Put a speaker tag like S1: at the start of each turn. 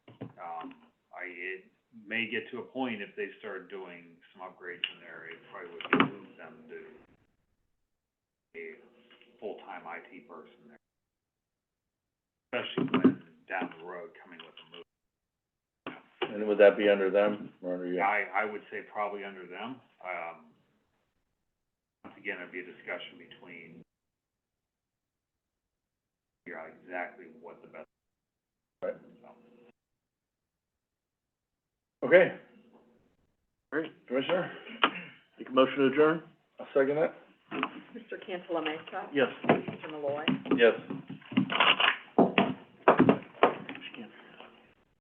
S1: Um, may get to a point if they start doing some upgrades in there, it probably would behoove them to be a full-time IT person there. Especially when down the road coming with a move.
S2: And would that be under them or under you?
S1: I, I would say probably under them, um, once again, it'd be a discussion between figure out exactly what the best.
S2: Right.
S1: So.
S2: Okay,
S3: Great.
S2: Commissioner,
S3: Make a motion to adjourn?
S2: I'll second that.
S4: Mr. Cantala Mesa,
S3: Yes.
S4: Mr. Malloy.
S2: Yes.